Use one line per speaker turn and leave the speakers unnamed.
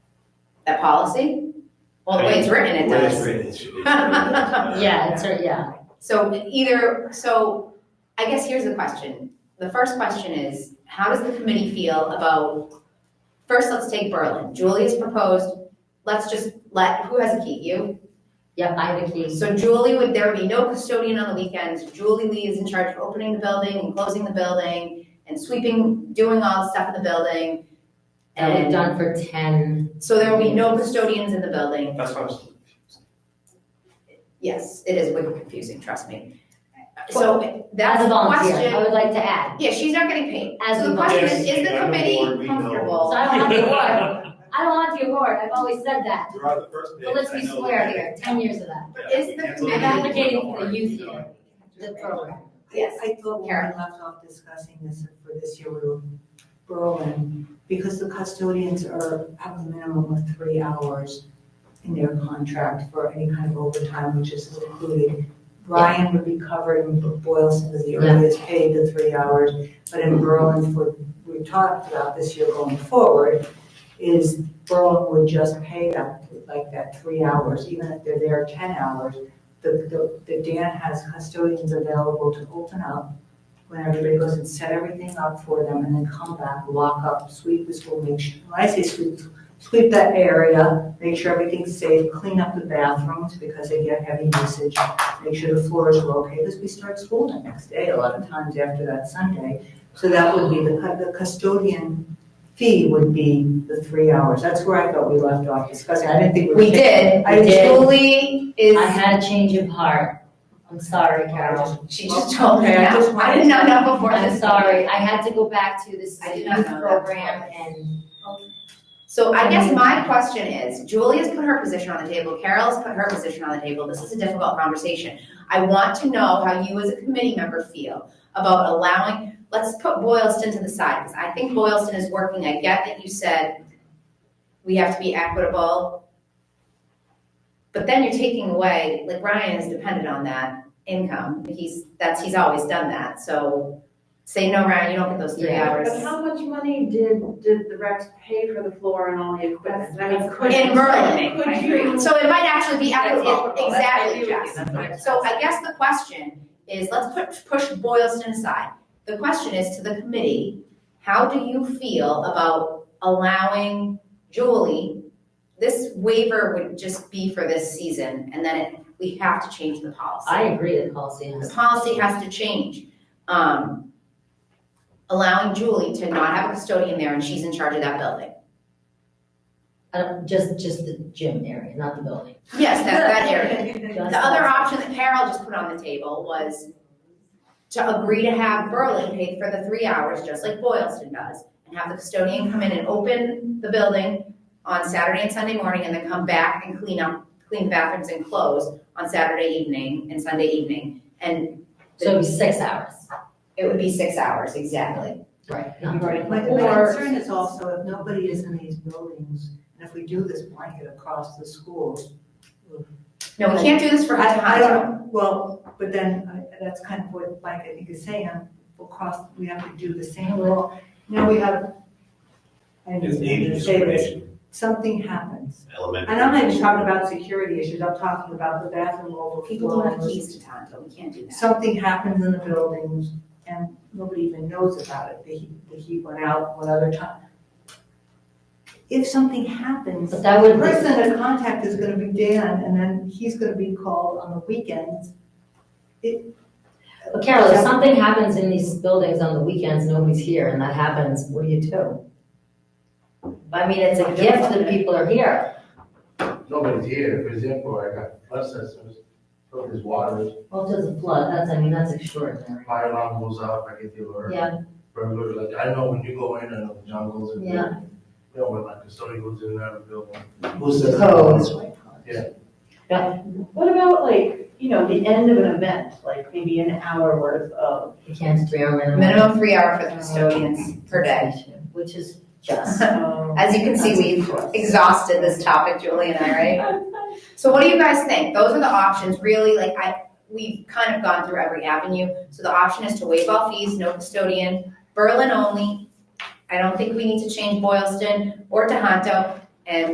That policy? Well, the way it's written, it
The way it's
does.
written, it's- it's- uh,
Yeah, it's, a- yeah,
So either, so I guess here's the question. The first question is, how does the committee feel about, first, let's take Berlin. Julie's proposed, let's just let, who has a key? You?
yep, I have a key.
So Julie would, there would be no custodian on the weekends. Julie Lee is in charge of opening the building and closing the building and sweeping, doing all the stuff in the building.
That we've
And
done for ten,
so there will be no custodians in the building.
That's what I was.
Yes, it is wicked confusing, trust me. So that's
as a
the
volunteer, I
question.
would like to add,
Yeah, she's not getting paid.
As
So
a
the question is,
volunteer.
is the
Yes, I'm
committee
on board, we know.
so
comfortable?
I don't have the award, I don't want the award, I've always said that.
You're on the first page.
But let's
I
be
know
square
that.
here, ten years of that,
But is the
Yeah, we
committee-
can't-
I'm advocating for the youth here. the program.
Yes.
I thought when we left off discussing this for this year, we were Berlin, because the custodians are at the minimum of three hours in their contract for any kind of overtime, which is included. Ryan would be covered in Boylston as the earliest paid the three hours, but in Berlin, for, we talked about this year going forward, is Berlin would just pay that, like that three hours, even if they're there ten hours. The, the, the Dan has custodians available to open up when everybody goes and set everything up for them and then come back, lock up, sweep the school, make sure, when I say sweep, sweep that area, make sure everything's safe, clean up the bathrooms because they get heavy usage, make sure the floors are okay, because we start school the next day, a lot of times after that Sunday. So that would be, the, cu- the custodian fee would be the three hours. That's where I thought we left off discussing. I didn't think we were.
We did.
I did.
Julie is,
I had a change of heart, I'm sorry, Carol,
she just told me
Okay, I
now.
just
I did not know before this.
I'm sorry, I had to go back to this
I did not
youth
know that.
program and,
So I guess my question is, Julie has put her position on the table, Carol has put her position on the table, this is a difficult conversation. I want to know how you as a committee member feel about allowing, let's put Boylston to the side, because I think Boylston is working, I get that you said we have to be equitable. But then you're taking away, like Ryan is dependent on that income, he's, that's, he's always done that, so say, no, Ryan, you don't get those three
Yeah.
hours.
But how much money did, did the Rex pay for the floor and all the equipment? I mean, could.
In Berlin.
Could you?
So it might actually be equitable,
That's
exactly,
equitable.
Jess. So I guess the question is, let's put, push Boylston aside. The question is to the committee, how do you feel about allowing Julie? This waiver would just be for this season, and then it- we have to change the
I
policy.
agree the policy
The
has.
policy has to change. Um, Allowing Julie to not have a custodian there and she's in charge of that building.
I don't, just, just the gym area, not the building.
Yes, that, that area.
Just
The other
that.
option that Carol just put on the table was to agree to have Berlin pay for the three hours, just like Boylston does, and have the custodian come in and open the building on Saturday and Sunday morning, and then come back and clean up, clean bathrooms and close on Saturday evening and Sunday evening, and
So it'd be six hours,
it would be six hours, exactly.
right?
My,
not-
my
Or-
concern is also if nobody is in these buildings, and if we do this blanket across the schools.
No, we can't do this for
I, I
Tohoto.
don't, well, but then, I- that's kind of what Mike, I think, is saying, across, we have to do the same rule. Now we have, I
It's
need
age
to say this,
discrimination,
something happens.
elementary.
And I'm not even talking about security issues, I'm talking about the bathroom overflow.
People don't have keys to Tohoto, we can't do that.
something happens in the buildings and nobody even knows about it, the heat, the heat went out one other time. If something happens,
But
the
that would, be-
person to contact is gonna be Dan, and then he's gonna be called on the weekends.
but Carol, if something happens in these buildings on the weekends, nobody's here, and that happens, what do you do? I mean, it's a gift that people are here.
nobody's here, for example, I got flood sensors, so there's water,
Well, if there's a flood, that's, I mean, that's extraordinary.
fire alarm goes off, I get the alert.
Yeah,
Burglar, like, I know when you go in and the jungles and.
Yeah.
You know, when like custodian goes in and out of the building. Who says?
codes.
What about like, you know, the end of an event, like maybe an hour worth of,
You can't three hour minimum.
Minimum three hour for the custodians per day.
Which is just,
um,
As you can see, we've exhausted this topic, Julie and I, right? So what do you guys think? Those are the options, really, like I, we've kind of gone through every avenue. So the option is to waive all fees, no custodian, Berlin only. I don't think we need to change Boylston or Tohoto, and